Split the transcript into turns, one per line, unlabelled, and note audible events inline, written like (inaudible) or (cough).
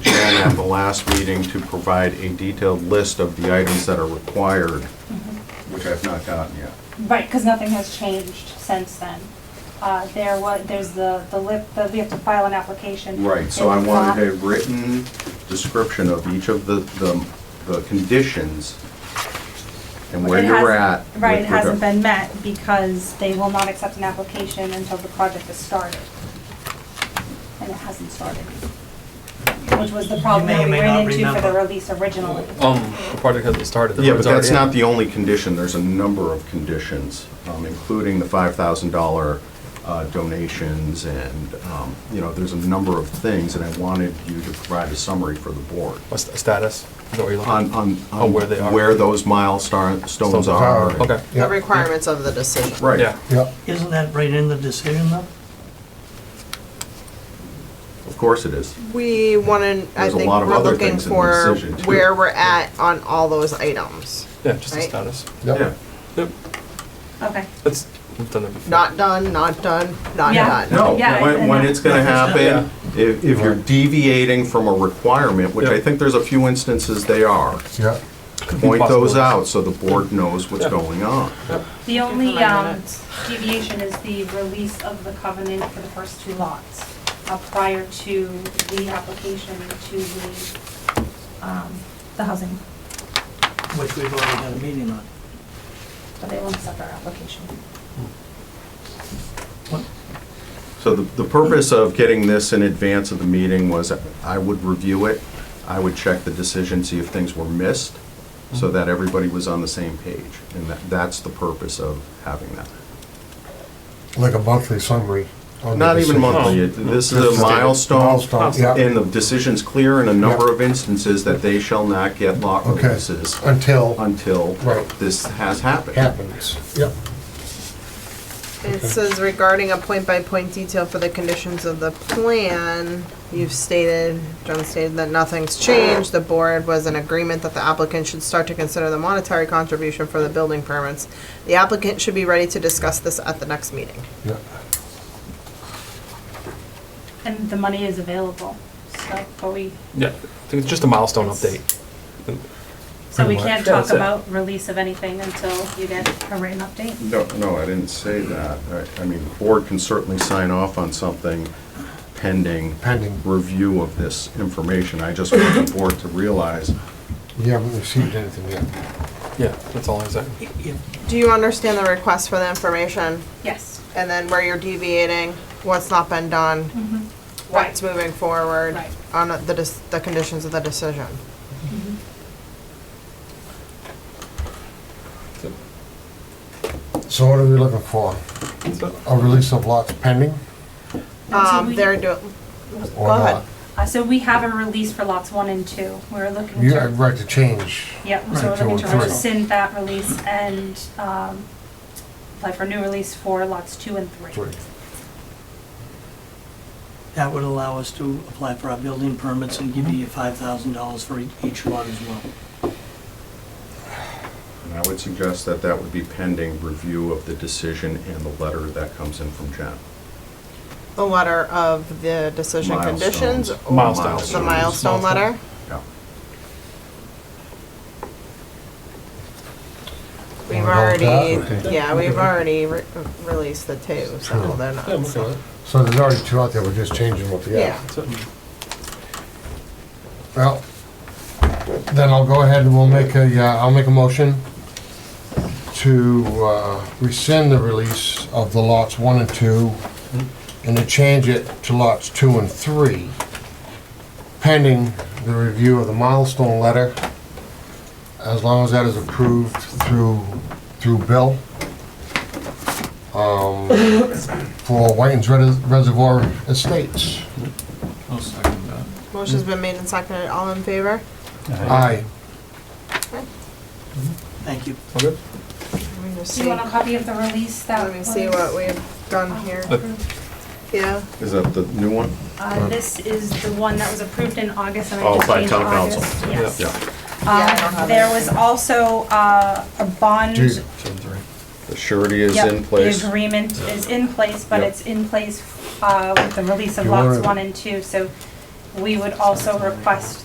at the last meeting to provide a detailed list of the items that are required, which I've not gotten yet.
Mm-hmm. Right, because nothing has changed since then. Uh, There was, there's the, the lip, the- we have to file an application.
Right, so I
There's
wanted a
not-
written description of each of the, the, the conditions and where
It
you're at.
hasn't- Right, it
with
hasn't
regard-
been met because they will not accept an application until the project is started. And it hasn't started. Which was the problem
may or
that we
may not
ran into for the
remember.
release originally.
Um, the project hasn't started. the
Yeah, but
road's
that's
already
not
in.
the only condition, there's a number of conditions, um, including the five thousand dollar uh, donations and, um, you know, there's a number of things, and I wanted you to provide a summary for the board.
What's the status? Is that what you're looking?
On, on.
Oh, where they are.
Where those milestones
Stones
are.
Okay.
The requirements of the decision.
Right.
Yeah.
Yep,
Isn't that right in the decision though?
Of course it is.
We want to, I
There's a
think
lot of
we're
other
looking
things in the
for
decision, too.
where we're at on all those items.
Yeah, just the
Right.
status.
Yeah.
yep.
Yep.
Okay.
That's we've done that before.
Not done, not done,
(laughs)
not
Yeah.
done.
No,
Yeah,
when,
and-
when it's gonna happen, if, if you're deviating from a requirement, which I
Yeah.
think there's a few instances they are,
Yep.
Could be
point those
possible.
out so the board knows what's
Yeah.
going on.
The only
Give her my
um,
minutes.
deviation is the release of the covenant for the first two lots uh, prior to the application to the, um, the housing,
Which we've already had a meeting on.
but they won't accept our application.
What?
So the, the purpose of getting this in advance of the meeting was I would review it, I would check the decision, see if things were missed, so
Mm-hmm.
that everybody was on the same page. And that, that's the purpose of having that.
Like a monthly summary. on the
Not even
decision.
monthly, it- this is
Just
a
a
milestone,
Milestone, yeah.
and the decision's clear in a number of instances that they shall not get lot
Okay.
releases
Until
until
Right.
this has happened.
happens, yep.
It says regarding a point-by-point detail for the conditions of the plan, you've stated, John stated that nothing's changed. The board was in agreement that the applicant should start to consider the monetary contribution for the building permits. The applicant should be ready to discuss this at the next meeting.
Yep.
And the money is available, so, but we,
Yeah, I think it's just a milestone update.
so we
Pretty much.
can't
Yeah,
talk
that's it.
about release of anything until you get a written update.
No, no, I didn't say that. I, I mean, the board can certainly sign off on something pending
Pending.
review of this information. I just want the board to realize,
You haven't received anything yet.
Yeah, that's all I'm saying.
You-
Do you understand the request for the information?
Yes,
And then where you're deviating, what's not been done,
Mm-hmm.
what's moving forward
Right.
on the, dis- the conditions of the decision.
So what are we looking for?
So-
A release of lots pending
Um, they're doing,
or
Go ahead.
not?
Uh, so we have a release for lots one and two, we're looking to.
You have right to change.
Yep, so
Right,
we're looking
two
to
and three.
rescind that release and um, apply for a new release for lots two and three.
Three.
That would allow us to apply for our building permits and give you five thousand dollars for e- each lot as well.
and I would suggest that that would be pending review of the decision and the letter that comes in from Jen.
the letter of the decision conditions
Milestones.
or
Milestones.
the milestone letter.
Yeah.
We've
Wanna
already,
go with that? Okay.
yeah, we've already re- released the two, so
Sure.
they're
Yeah, I'm
not.
okay with it.
So there's already two out there, we're just changing what we
Yeah,
have.
So-
Well, then I'll go ahead and we'll make a, uh, I'll make a motion to uh, rescind the release of the lots one and two and to change it to lots two and three pending the review of the milestone letter as long as that is approved through, through Bill. um, For Whiting's Res- Reservoir Estates.
I'll second that.
motion's been made and seconded, all in favor?
Aye.
Thank you.
All good?
Let me just
Do you
see,
want a copy of the release that
let me see what we've done here.
Uh,
Yeah,
Is that the new one?
Uh, this is the one that was approved in August and I
Oh,
just
by
changed
town
August.
council.
Yes.
Yeah.
I don't
Um,
have
There
it.
was also uh, a bond.
Judy.
The surety is
Yep,
in place.
The agreement is in place, but
Yep.
it's in place uh, with the release of
You wanna-
lots one and two. So we would also request